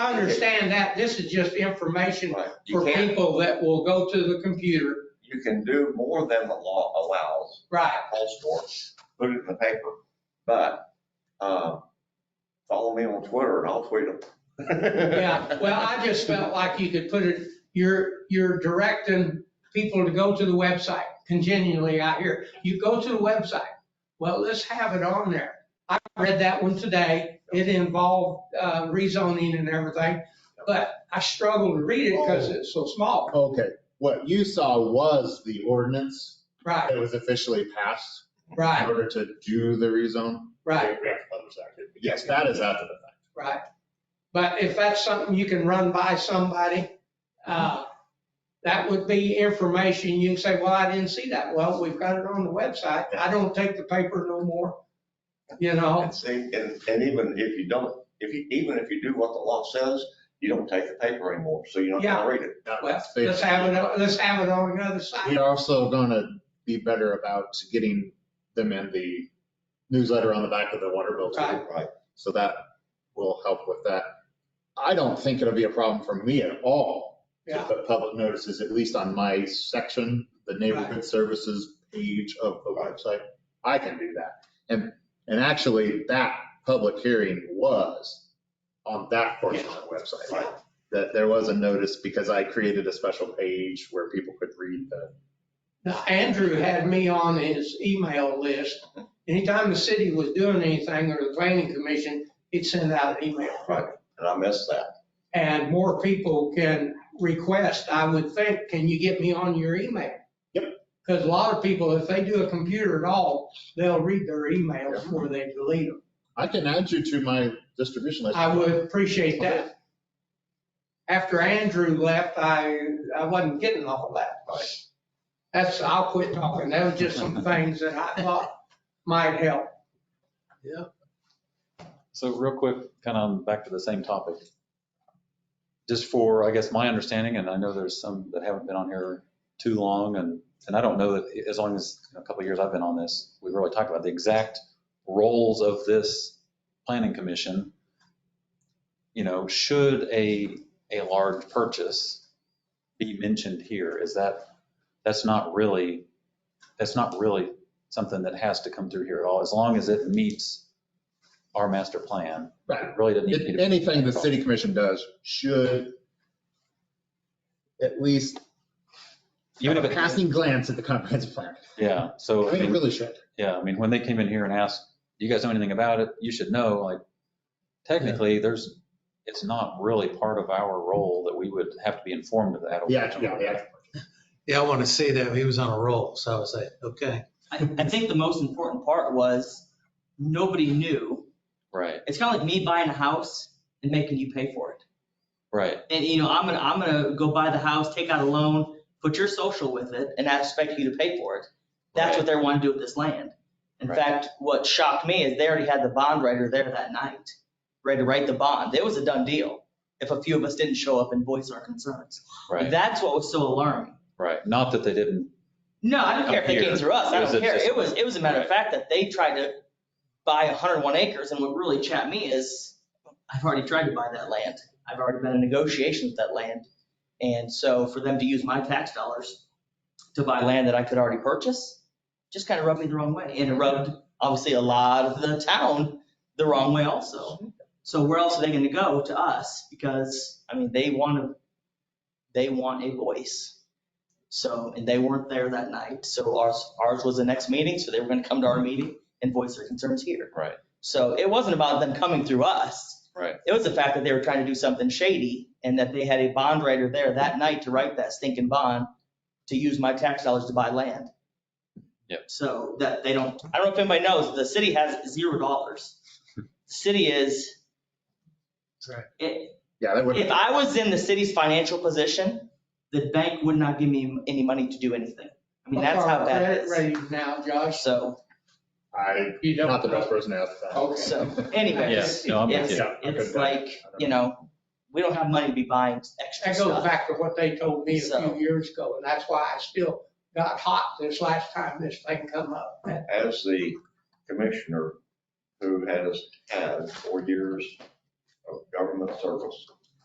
I understand that. This is just information Right. You for can't, people that will go to the computer. you can do more than the law allows, Right. all sports, put it in the paper. But, um, follow me on Twitter and I'll tweet them. Yeah, well, I just felt like you could put it, you're, you're directing people to go to the website continually out here. You go to the website. Well, let's have it on there. I read that one today. It involved uh, rezoning and everything, but I struggled to read it because Oh. it's so small. Okay, what you saw was the ordinance Right, that was officially passed in right, order to do the rezone. Oh, right, Yes, that is after the fact. right. But if that's something you can run by somebody, uh, that would be information. You can say, well, I didn't see that. Well, we've got it on the website. I don't take the paper no more, you know? And see, and, and even if you don't, if you, even if you do what the law says, you don't take the paper anymore, so you're not gonna read it. That Well, was let's have it, basically- on- let's have it on another site. We're also gonna be better about getting them in the newsletter on the back of the water bill too. Right. Right. So that will help with that. I don't think it'll be a problem for me at all to Yeah, put public notices, at least on my section, the neighborhood services page of the website. I can do that. And, and actually that public hearing was on that portion of the website. Right. That there was a notice because I created a special page where people could read the Now, Andrew had me on his email list. Anytime the city was doing anything or the planning commission, he'd send out an email. And I missed that. And more people can request, I would think, can you get me on your email? Yep. Because a lot of people, if they do a computer at all, they'll read their email before they delete them. I can add you to my distribution list. I would appreciate that. After Andrew left, I, I wasn't getting all that, but that's, I'll quit talking. That was just some things that I thought might help. So real quick, kind of back to the same topic. Just for, I guess, my understanding, and I know there's some that haven't been on here too long, and, and I don't know that as long as, you know, a couple of years I've been on this, we've really talked about the exact roles of this planning commission. You know, should a, a large purchase be mentioned here? Is that, that's not really, that's not really something that has to come through here at all, as long as it meets our master plan. Right. It really doesn't need to It- be. Anything the city commission does should at least Even if have a it passing glance at the comprehensive plan. Yeah, so, I I mean, it mean, really should. yeah, I mean, when they came in here and asked, you guys know anything about it? You should know, like, technically, there's, it's not really part of our role that we would have to be informed of that. Yeah, yeah, yeah. Yeah, I want to see that. He was on a roll, so I was like, okay. I, I think the most important part was nobody knew. Right, It's kind of like me buying a house and making you pay for it. right, And you know, I'm gonna, I'm gonna go buy the house, take out a loan, put your social with it, and I expect you to pay for it. That's what they want to do with this land. In Right. fact, what shocked me is they already had the bond writer there that night, ready to write the bond. It was a done deal if a few of us didn't show up and voice our concerns. right, That's what was so alarming. right. Not that they didn't, No, I don't care if they came through us. It I was don't care. just- It was, it was a matter of fact that they tried to buy 101 acres and what really chapped me is I've already tried to buy that land. I've already been in negotiations with that land. And so for them to use my tax dollars to buy land that I could already purchase, just kind of rubbed me the wrong way. And it rubbed obviously a lot of the town the wrong way also. So where else are they going to go to us? Because, I mean, they want to, they want a voice. So, and they weren't there that night. So ours, ours was the next meeting, so they were gonna come to our meeting and voice their concerns here. Mm-hmm. right, So it wasn't about them coming through us. right, It was the fact that they were trying to do something shady and that they had a bond writer there that night to write that stinking bond to use my tax dollars to buy land. Yep. So that they don't, I don't know if anybody knows, the city has zero dollars. The City is, Right. it, Yeah, that would, if I was in the city's financial position, the bank would not give me any money to do anything. I mean, that's how bad it Credit is. rating now, Josh. So, I, You don't. not the best person to ask that. Okay. so yeah, anyways, no, I'm with it's, you. Yeah, I it's couldn't- like, I don't you know, we don't have money to be buying extra That goes stuff. back to what they told me a few So- years ago, and that's why I still got hot this last time this thing come up. As the commissioner who has had four years of government service,